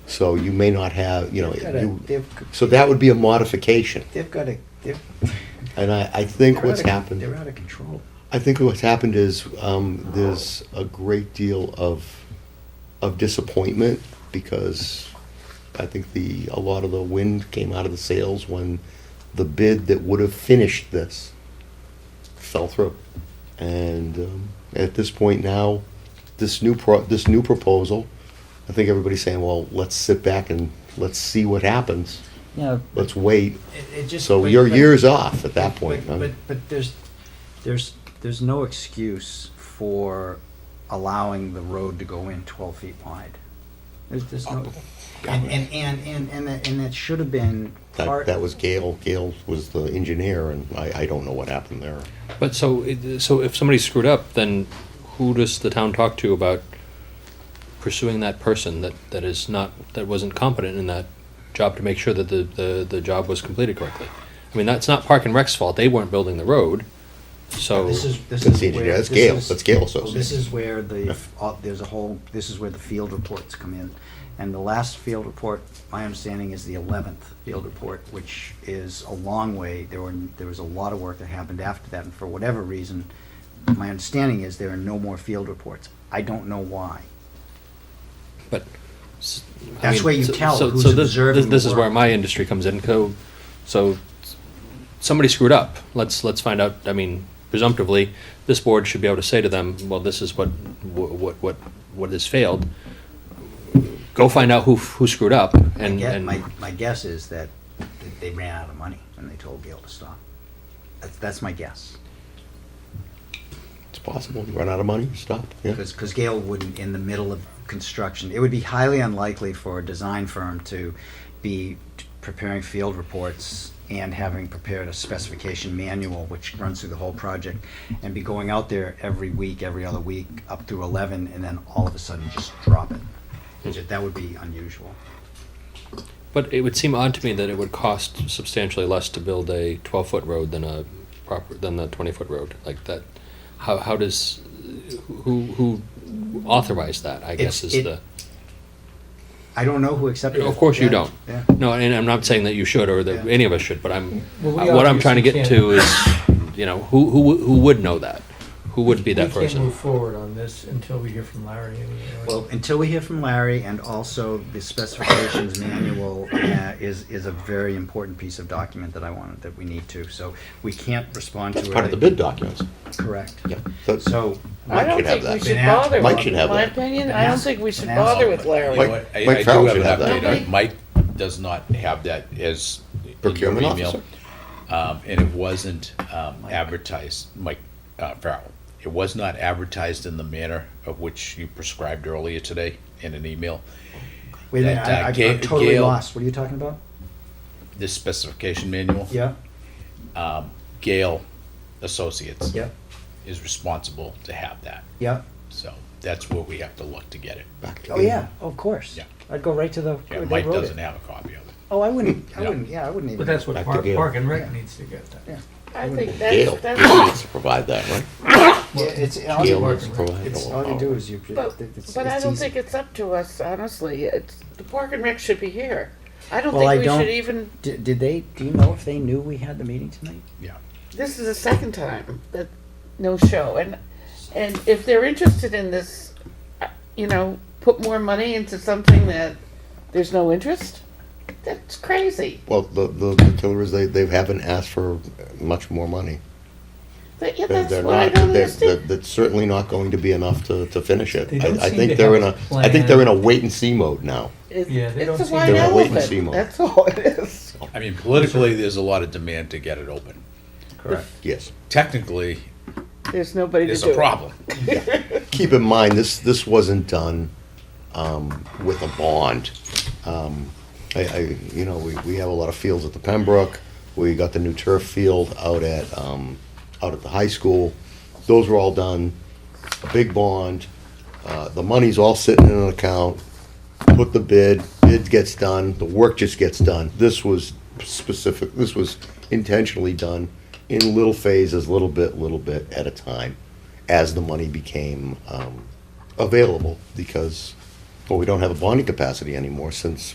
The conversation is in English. so you may not have, you know, They've got a- you- they've- so that would be a modification. They've got a, they've. And I, I think they're what's out of- happened. They're out of control. I think what's happened is um, there's a great deal of of disappointment because I think the a lot of the wind came out of the sails when the bid that would have finished this fell through, and um, at this point now, this new pro- this new proposal, I think everybody's saying, well, let's sit back and let's see what happens. Yeah, Let's wait. It, it just. So but- you're but- years off at that but- point. But, huh? but, but there's, there's, there's no excuse for allowing the road to go in twelve feet wide. There's, there's Uh, no, and, and, and, and, and that, and that should have been That, part. that was Gail. Gail was the engineer, and I, I don't know what happened there. But so, it- so if somebody screwed up, then who does the town talk to about pursuing that person that, that is not, that wasn't competent in that job to make sure that the, the, the job was completed correctly? I mean, that's not Park and Rec's fault, they weren't building the road, so. This is, this That's is the where. engineer, that's this Gail, is- that's Gail Well, This Associates. is where the, uh, there's a whole, this is where the field reports come in. And the last field report, my understanding, is the eleventh field report, which is a long way. There were, there was a lot of work that happened after that, and for whatever reason, my understanding is there are no more field reports. I don't know why. But. s- I That's mean, where you so- tell so- who's so this- observing this- This the is where work. my industry comes in, so, so somebody screwed up, let's, let's find out, I mean, presumptively, this board should be able to say to them, well, this is what, wh- what, what, what has failed. Go find out who, who screwed up My and, guess, my, and, my guess is that they ran out of money and they told Gail to stop. That's, that's my guess. It's possible, you run out of money, stop, yeah. Because, because Gale wouldn't, in the middle of construction, it would be highly unlikely for a design firm to be preparing field reports and having prepared a specification manual, which runs through the whole project, and be going out there every week, every other week, up through eleven, and then all of a sudden just drop it. It's Hmm. ju- That would be unusual. but it would seem odd to me that it would cost substantially less to build a twelve-foot road than a proper, than the twenty-foot road, like that. How, how does, who, who authorized that, I guess It's- is it- the. I don't know who accepted it. Of course you Yeah, don't. Yeah. No, and I'm not saying that you should or that Yeah. any of us should, but I'm, Well, we Uh, what I'm obviously trying to get to is, you know, who, who, would- who would know that? Who would be that we can't person? move forward on this until we hear from Larry. anyway, right? Well, until we hear from Larry, and also the specifications manual uh, is, is a very important piece of document that I wanted, that we need to, so we can't respond to it. That's part of the bid documents, Correct. yeah. That's- So, I Mike don't should have think we that. should Been asked. bother Mike with, should have my that. opinion, Been I don't asked. think we should Been asked. bother with You Larry. know Mike- what? I- Mike I Farrell do have should an have that. update. Nobody- on- Mike does not have that as. in your Procurement email. officer. Um, and it wasn't, um, advertised, Mike, uh, Farrell. It was not advertised in the manner of which you prescribed earlier today in an email. wait a minute, That, uh, I- I'm Ga- totally Gail- lost, what are you talking about? This specification manual. Yeah, Gale Associates. yeah, Is responsible to have that. yeah. So that's where we have to look to get it. Back to Oh, Gail. yeah, of course. Yeah. I'd go right to the, Yeah, where they Mike wrote doesn't it. have a copy of it. Oh, I wouldn't, I Yeah. wouldn't, yeah, I wouldn't even. But that's what Back to Park, Gail. Park and Rec needs to get that. I think Gail, that's, Gail that's, needs to provide that, right? Yeah, It's, all Gail you, needs to provide it's, all- all you do is you, but, it's, it's but I don't easy. think it's up to us, honestly. It's, the Park and Rec should be here. I don't Well, I think we don't- should even, Did, did they, do you know if they knew we had the meeting tonight? Yeah. this is the second time that, no show. And, and if they're interested in this, uh, you know, put more money into something that there's no interest, that's crazy. Well, the, the, the killer is they, they haven't asked for much more money. But, yeah, They're, that's they're what I not, don't they're, understand. they're- that's certainly not going to be enough to, to finish it. They don't I, I seem think to they're in have a, a I think they're in a plan. wait and see mode now. It's, Yeah, they don't it's a seem wide to- They're wait and see elephant. mode. That's all it is. I mean, politically, there's a lot of demand to get it open. Correct. Yes. Technically, There's nobody to it's do a it. problem. keep in mind, this, this wasn't done um, with a bond. Um, I, I, you know, we, we have a lot of fields at the Pembroke, we got the new turf field out at, um, out at the high school. Those were all done, a big bond, uh, the money's all sitting in an account, put the bid, bid gets done, the work just gets done. This was specific, this was intentionally done in little phases, little bit, little bit at a time, as the money became um, available, because, well, we don't have a bonding capacity anymore since